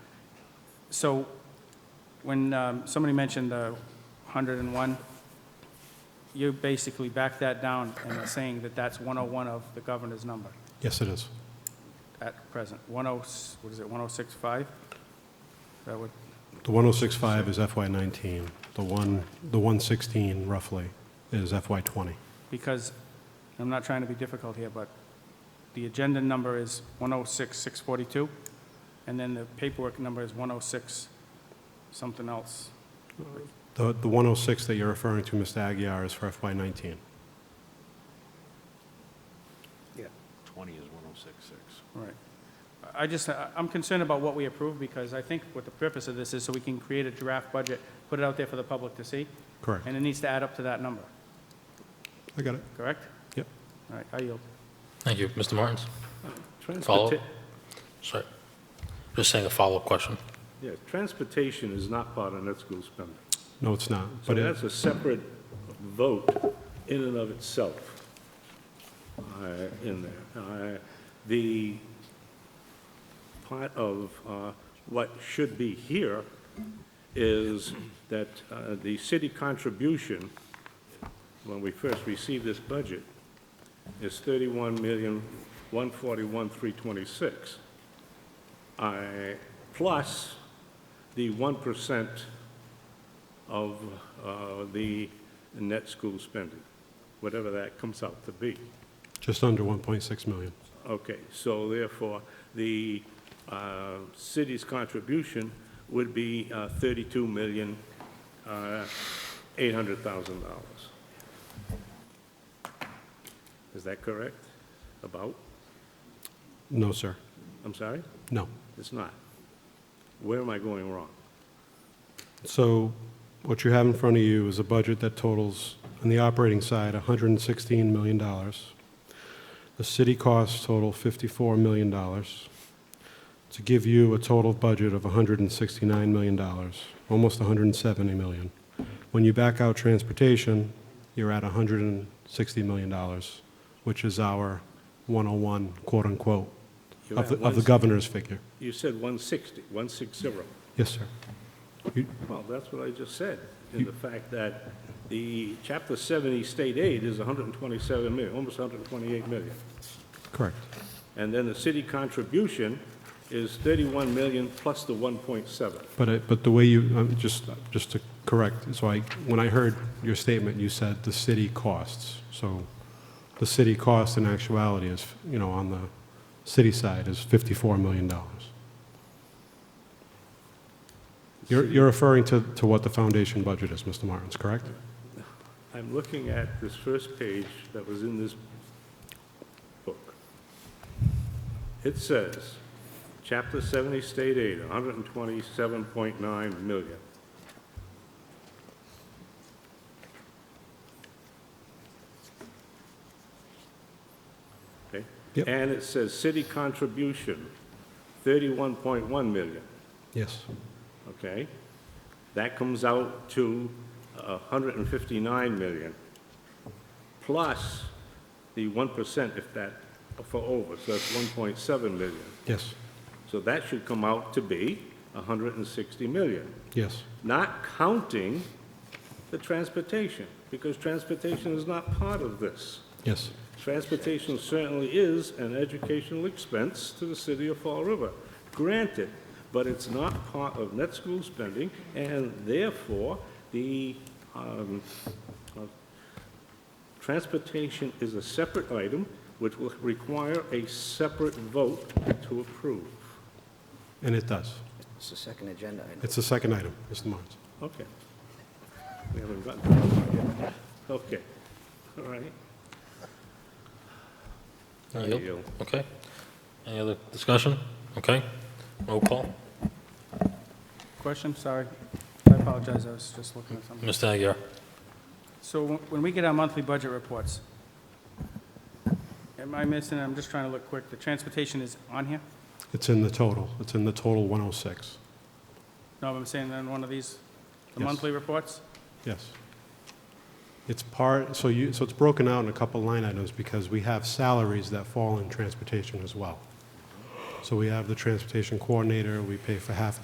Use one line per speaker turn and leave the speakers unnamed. So when um, somebody mentioned the 101, you basically back that down and are saying that that's 101 of the governor's number
Yes, it is.
at present. 10, what is it, 1065? That would,
The 1065 is FY '19. The one, the 116 roughly is FY '20.
because, I'm not trying to be difficult here, but the agenda number is 106642, and then the paperwork number is 106 something else.
The, the 106 that you're referring to, Mr. Aguirre, is for FY '19.
20 is 1066.
Right. I I just, I- I'm concerned about what we approve, because I think what the purpose of this is so we can create a draft budget, put it out there for the public to see,
Correct.
and it needs to add up to that number,
I got it.
correct?
Yep.
All right, I yield.
Thank you. Mr. Martins? Follow-up? Sorry. Just saying a follow-up question.
Yeah, transportation is not part of net school spending.
No, it's not.
So
But it,
that's a separate vote in and of itself uh, in there. Uh, The part of uh, what should be here is that uh, the city contribution, when we first received this budget, is thirty-one million, one forty-one, three twenty-six. I, plus the one percent of uh, the net school spending, whatever that comes out to be.
just under 1.6 million.
Okay, so therefore, the uh, city's contribution would be uh, $32,800,000. Is that correct? About?
No, sir.
I'm sorry?
No.
It's not. Where am I going wrong?
So what you have in front of you is a budget that totals, on the operating side, $116 million. The city costs total $54 million, to give you a total budget of $169 million, almost $170 million. When you back out transportation, you're at $160 million, which is our 101, quote-unquote,
You're
of
at
the- of the
one-
governor's figure.
You said 160, 160.
Yes, sir. You-
Well, that's what I just said, in the fact that the Chapter 70 state aid is 127 million, almost 128 million.
Correct.
And then the city contribution is 31 million plus the 1.7.
But, I- but the way you, um, just, just to correct, so I, when I heard your statement, you said the city costs. So the city cost in actuality is, you know, on the city side is $54 million. You're, you're referring to, to what the foundation budget is, Mr. Martins, correct?
I'm looking at this first page that was in this book. It says, Chapter 70 state aid, 127.9 million. Okay?
Yep.
And it says city contribution, 31.1 million
Yes.
okay? That comes out to 159 million, plus the 1% if that, for over, so that's 1.7 million.
Yes.
So that should come out to be 160 million,
Yes.
not counting the transportation, because transportation is not part of this.
Yes.
Transportation certainly is an educational expense to the city of Fall River, granted, but it's not part of net school spending, and therefore, the, um, uh, transportation is a separate item which will require a separate vote to approve.
And it does.
It's the second agenda item.
It's the second item, Mr. Martins.
Okay. We haven't gotten to that yet. Okay, all right.
I
Yep.
yield. Okay. Any other discussion? Okay. Roll call.
Question, sorry. I apologize, I was just looking at something.
Mr. Aguirre?
So when- when we get our monthly budget reports, am I missing, I'm just trying to look quick, the transportation is on here?
It's in the total. It's in the total 106.
No, I'm saying in one of these, the
Yes.
monthly reports?
Yes. It's part, so you, so it's broken out in a couple line items because we have salaries that fall in transportation as well. So we have the transportation coordinator, we pay for half